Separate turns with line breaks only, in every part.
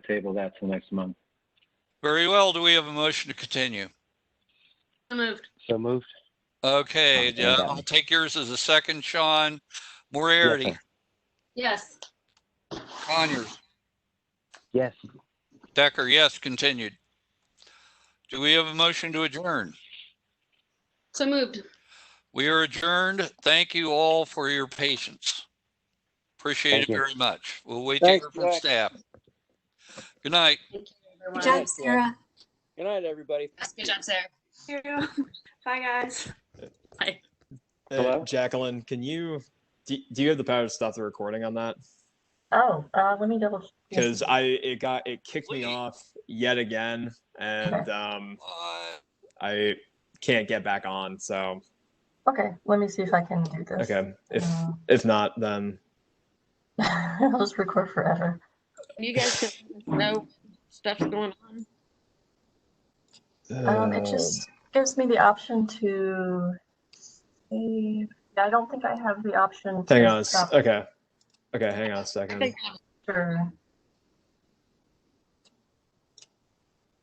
table that till next month.
Very well. Do we have a motion to continue?
So moved.
So moved?
Okay,
Okay,
yeah,
then.
I'll take yours as a second, Sean. Moriarty,
Yes,
Yes.
Conyers,
Yes.
Decker, yes, continued. Do we have a motion to adjourn?
So moved.
We are adjourned. Thank you all for your patience. Appreciate
Thank
it
you.
very much. We'll wait to hear
Thanks,
from
Jack.
staff. Good night.
Thank you,
Good
everyone.
job,
Thanks, Sarah.
Sarah.
Good night, everybody.
Yes, Good job, Sarah.
Bye, guys.
Uh,
Hello?
Jacqueline, can you do, do you have the power to stop the recording on that?
Oh, uh, let me double.
Because I it got it kicked
Please.
me off yet again, and um,
Bye.
I can't get back on. So
Okay, let me see if I can do this.
okay, if
Uh,
if not, then
I'll just record forever.
You guys can know stuff's going on.
Um,
Uh,
it just gives me the option to save. I don't think I have the option.
hang
to
on. a s- uh,
stop
Okay, okay, hang on a
I
second.
think
after-
uh,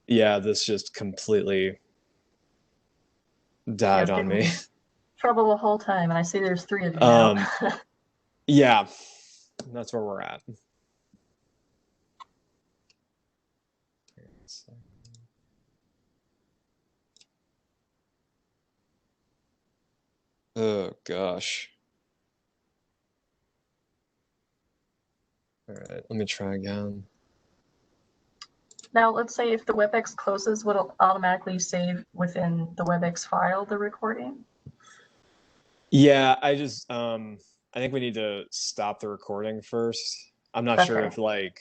Yeah, this just completely died
Yeah,
on
didn't
me.
Trouble the whole time, and I see there's three of you now.
Um, Yeah, that's where we're at. Oh gosh. All right, let me try again.
Now, let's say if the WebEx closes, would it automatically save within the WebEx file the recording?
Yeah, I just um I think we need to stop the recording first. I'm not sure
Okay.
if like